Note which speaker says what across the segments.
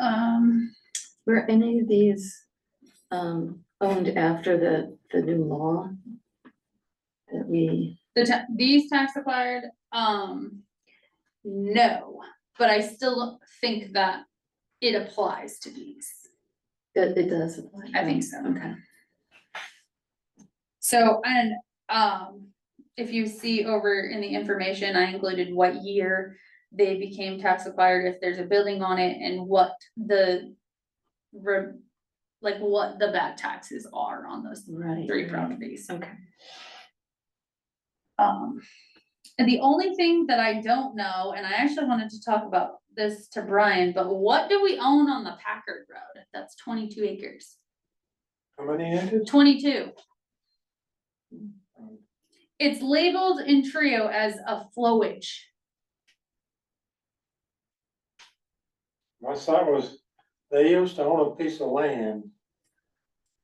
Speaker 1: Um,
Speaker 2: Were any of these um owned after the the new law? That we,
Speaker 1: The ta- these tax acquired, um, no, but I still think that it applies to these.
Speaker 2: that it does apply?
Speaker 1: I think so.
Speaker 2: Okay,
Speaker 1: So, and, um, if you see over in the information, I included what year they became tax acquired, if there's a building on it, and what the re- like what the back taxes are on those
Speaker 2: right.
Speaker 1: three properties.
Speaker 2: Mm. Okay.
Speaker 1: Um, and the only thing that I don't know, and I actually wanted to talk about this to Brian, but what do we own on the Packard Road? That's twenty-two acres,
Speaker 3: How many acres?
Speaker 1: twenty-two. It's labeled in Trio as a flowage.
Speaker 3: My son was, they used to own a piece of land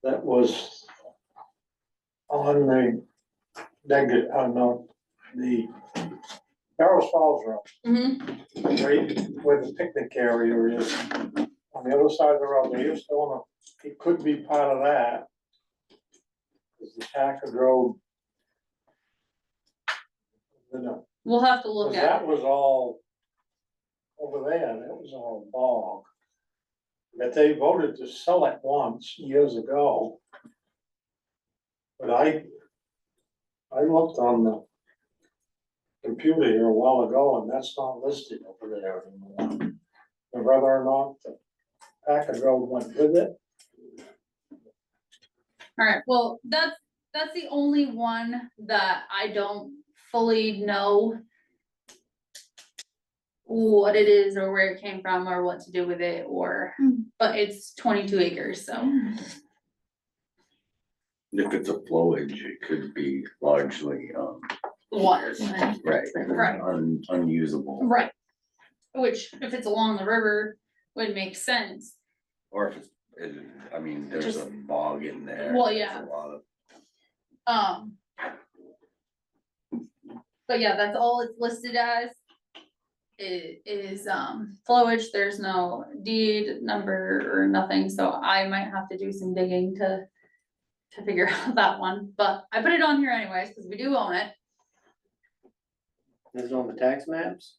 Speaker 3: that was on the, that good, I don't know, the Carroll Falls Road,
Speaker 1: Mhm.
Speaker 3: right where the picnic area is. On the other side of the road, they used to own a, it could be part of that. Is the Packard Road. You know,
Speaker 1: We'll have to
Speaker 3: 'Cause
Speaker 1: look at
Speaker 3: that
Speaker 1: it.
Speaker 3: was all over there, that was all bog. But they voted to sell it once years ago. But I, I looked on the computer here a while ago and that's not listed over there anymore. And Whether or not the Packard Road went with it,
Speaker 1: Alright, well, that's, that's the only one that I don't fully know. What it is or where it came from or what to do with it or,
Speaker 2: Hmm.
Speaker 1: but it's twenty-two acres, so.
Speaker 4: If it's a flowage, it could be largely, um,
Speaker 1: Water.
Speaker 2: Right.
Speaker 4: right,
Speaker 1: Right.
Speaker 4: un- unusable,
Speaker 1: Right. Which, if it's along the river, would make sense.
Speaker 4: or if it's, it- I mean, there's a bog in there.
Speaker 1: Well,
Speaker 4: there's
Speaker 1: yeah.
Speaker 4: A lot of,
Speaker 1: Um. But yeah, that's all it's listed as. It is, um, flowage, there's no deed number or nothing, so I might have to do some digging to. To figure out that one, but I put it on here anyways, cause we do own it,
Speaker 5: This is on the tax maps?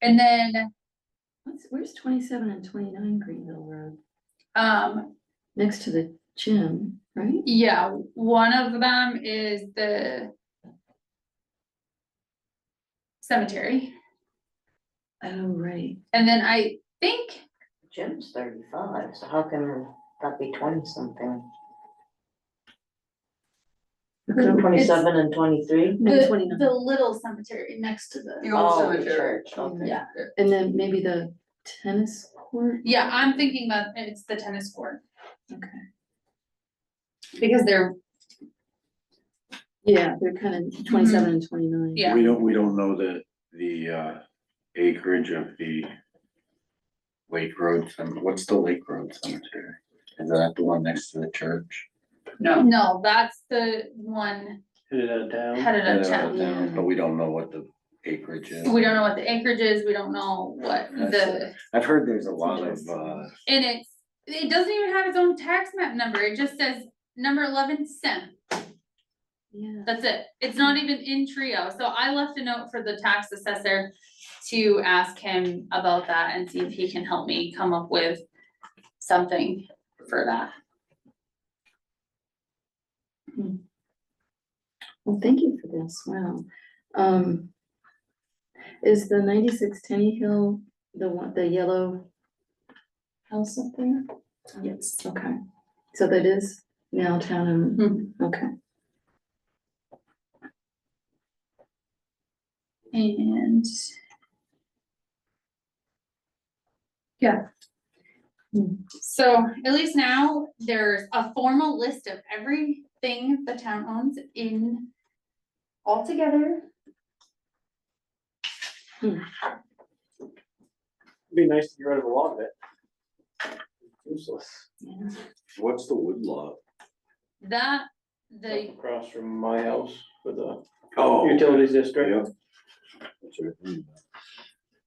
Speaker 1: and then,
Speaker 2: What's, where's twenty-seven and twenty-nine Greenville Road?
Speaker 1: um,
Speaker 2: Next to the gym, right?
Speaker 1: yeah, one of them is the. Cemetery,
Speaker 2: Oh, right.
Speaker 1: and then I think
Speaker 6: Jim's thirty-five, so how can that be twenty-something?
Speaker 2: Okay.
Speaker 6: Twenty-seven and twenty-three?
Speaker 2: No,
Speaker 1: The,
Speaker 2: twenty-nine,
Speaker 1: the little cemetery next to the.
Speaker 7: The old
Speaker 6: Oh, the
Speaker 7: cemetery.
Speaker 6: church, okay.
Speaker 1: Yeah,
Speaker 2: and then maybe the tennis court?
Speaker 1: yeah, I'm thinking that it's the tennis court,
Speaker 2: Okay.
Speaker 1: because they're,
Speaker 2: Yeah, they're kind of twenty-seven and twenty-nine.
Speaker 1: yeah,
Speaker 4: we don't, we don't know the, the, uh, acreage of the Lake Road, Cem- what's the Lake Road Cemetery? Is that the one next to the church?
Speaker 7: No,
Speaker 1: no, that's the one
Speaker 5: Hit it out of town.
Speaker 1: headed
Speaker 4: I
Speaker 1: up
Speaker 4: don't
Speaker 1: Uh, town.
Speaker 4: know, But we don't know what the acreage is.
Speaker 1: We don't know what the acreage is, we don't know what
Speaker 4: That's
Speaker 1: the,
Speaker 4: I've heard there's a lot of, uh,
Speaker 1: and it's, it doesn't even have its own tax map number, it just says number eleven cent.
Speaker 2: Yeah.
Speaker 1: That's it. It's not even in Trio. So I left a note for the tax assessor to ask him about that and see if he can help me come up with something for that.
Speaker 2: Well, thank you for this, wow. Um, is the ninety-six Tenny Hill, the one, the yellow house up there?
Speaker 1: Yes.
Speaker 2: Okay, so that is now town and,
Speaker 1: And
Speaker 2: okay.
Speaker 1: yeah.
Speaker 2: Hmm.
Speaker 1: So at least now there's a formal list of everything the town owns in all together.
Speaker 5: It'd Be nice to get rid of a lot of it. Useless.
Speaker 2: yeah.
Speaker 4: what's the woodlot?
Speaker 1: That, the
Speaker 5: Up Across from my house with the
Speaker 4: Oh.
Speaker 5: utilities district.
Speaker 4: That's right. Hmm.